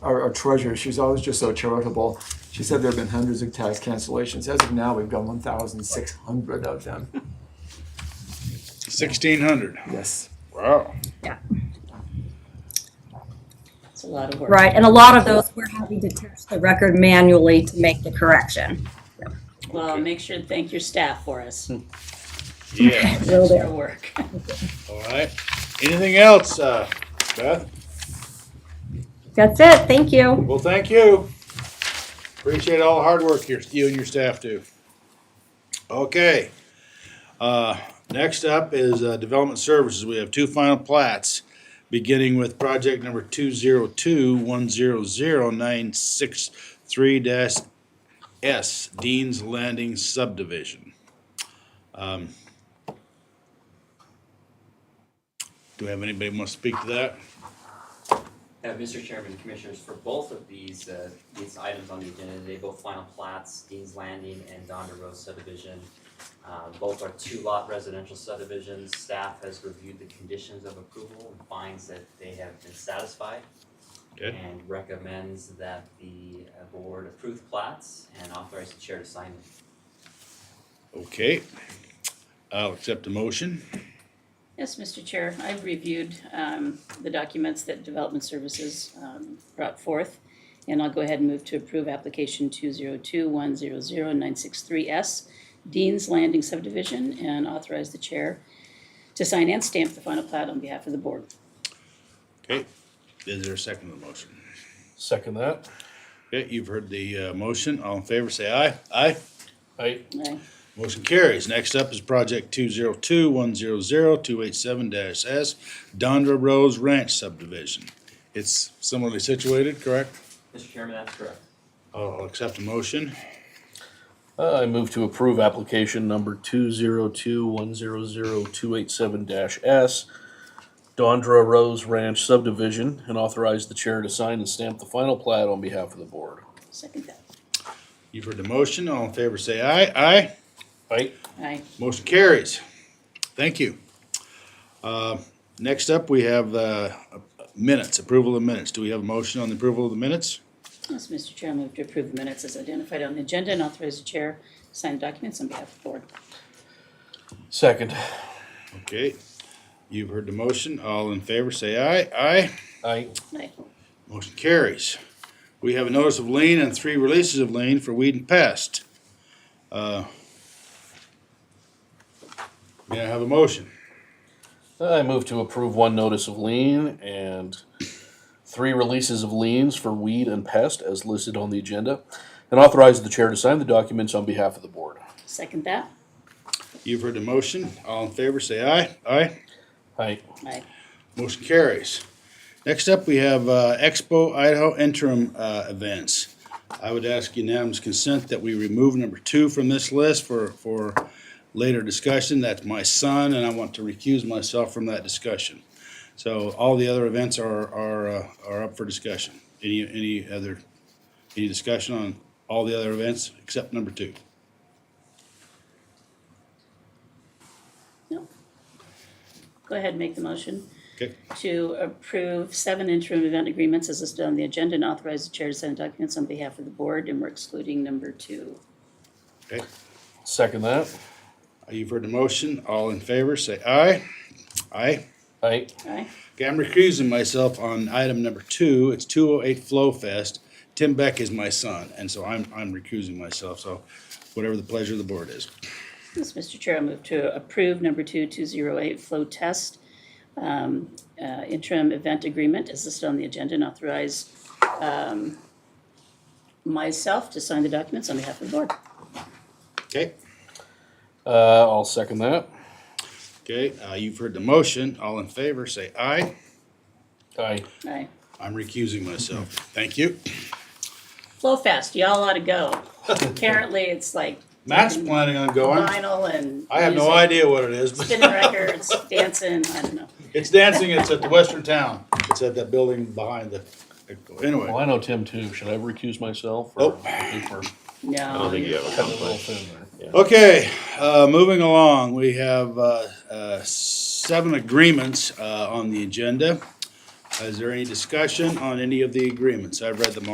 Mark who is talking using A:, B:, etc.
A: our our treasurer, she's always just so charitable. She said there have been hundreds of tax cancellations. As of now, we've got one thousand six hundred of them.
B: Sixteen hundred.
A: Yes.
B: Wow.
C: It's a lot of work.
D: Right, and a lot of those, we're having to test the record manually to make the correction.
C: Well, make sure to thank your staff for us.
B: Yeah.
D: Will
C: Their
D: do.
C: work.
B: All right. Anything else, uh, Beth?
D: That's it, thank you.
B: Well, thank you. Appreciate all the hard work here, you and your staff do. Okay. Uh, next up is, uh, Development Services. We have two final plats, beginning with project number two zero two one zero zero nine six three dash S, Dean's Landing subdivision. Um, Do we have anybody want to speak to that?
E: Uh, Mr. Chairman, Commissioners, for both of these, uh, these items on the agenda, they both final plats, Dean's Landing and Donder Road subdivision. Uh, both are two lot residential subdivisions. Staff has reviewed the conditions of approval and finds that they have been satisfied.
B: Okay.
E: And recommends that the uh, board approve the plats and authorize the chair to sign them.
B: Okay, I'll accept the motion.
C: Yes, Mr. Chair, I've reviewed um, the documents that Development Services um, brought forth, and I'll go ahead and move to approve application 202100963S, Dean's Landing subdivision, and authorize the chair to sign and stamp the final plat on behalf of the board.
B: Okay, is there a second to the motion?
F: Second that.
B: Okay, you've heard the uh, motion. All in favor, say aye. Aye.
F: I
C: Aye.
B: Motion carries. Next up is project two zero two one zero zero two eight seven dash S, Dondra Rose Ranch subdivision. It's similarly situated, correct?
E: Mr. Chairman, that's correct.
B: I'll accept the motion.
F: I move to approve application number two zero two one zero zero two eight seven dash S, Dondra Rose Ranch subdivision, and authorize the chair to sign and stamp the final plat on behalf of the board.
C: Second that.
B: You've heard the motion. All in favor, say aye. Aye.
F: Aye.
C: Aye.
B: Motion carries. Thank you. Uh, Next up, we have uh, minutes, approval of minutes. Do we have a motion on the approval of the minutes?
C: Yes, Mr. Chair, I move to approve the minutes as identified on the agenda and authorize the chair to sign the documents on behalf of the board.
F: Second.
B: Okay, you've heard the motion. All in favor, say aye. Aye.
F: Aye.
C: Aye.
B: Motion carries. We have a notice of lien and three releases of lien for weed and pest. Uh, May I have a motion?
F: I move to approve one notice of lien and three releases of liens for weed and pest as listed on the agenda, and authorize the chair to sign the documents on behalf of the board.
C: Second that.
B: You've heard the motion. All in favor, say aye. Aye.
F: Aye.
C: Aye.
B: Motion carries. Next up, we have uh, Expo Idaho interim uh, events. I would ask unanimous consent that we remove number two from this list for, for later discussion. That's my son, and I want to recuse myself from that discussion. So all the other events are, are, uh, are up for discussion. Any, any other, any discussion on all the other events except number two?
C: No. Go ahead and make the motion
B: Okay,
C: to approve seven interim event agreements as listed on the agenda and authorize the chair to sign documents on behalf of the board, and we're excluding number two.
B: okay.
F: Second that.
B: You've heard the motion. All in favor, say aye. Aye.
F: Aye.
C: Aye?
B: Okay, I'm recusing myself on item number two. It's two oh eight Flow Fest. Tim Beck is my son, and so I'm, I'm recusing myself, so whatever the pleasure of the board is.
C: Yes, Mr. Chair, I move to approve number two, two zero eight flow test um, uh, interim event agreement as listed on the agenda and authorize um, myself to sign the documents on behalf of the board.
B: Okay,
F: Uh, I'll second that.
B: okay, uh, you've heard the motion. All in favor, say aye.
F: Aye.
C: Aye.
B: I'm recusing myself. Thank you.
C: Flow fast, y'all ought to go. Apparently, it's like
B: Matt's planning on going.
C: vinyl and.
B: I have no
C: music.
B: idea what it is,
C: spinning
B: but
C: records, dancing, I don't know.
B: it's dancing. It's at the Western Town. It's at that building behind the,
F: Well,
B: anyway.
F: I know Tim too. Should I recuse myself?
B: Nope.
F: Or
C: No.
F: cut a little thin there?
B: Okay, uh, moving along, we have, uh, uh, seven agreements, uh, on the agenda. Is there any discussion on any of the agreements? I've read them all.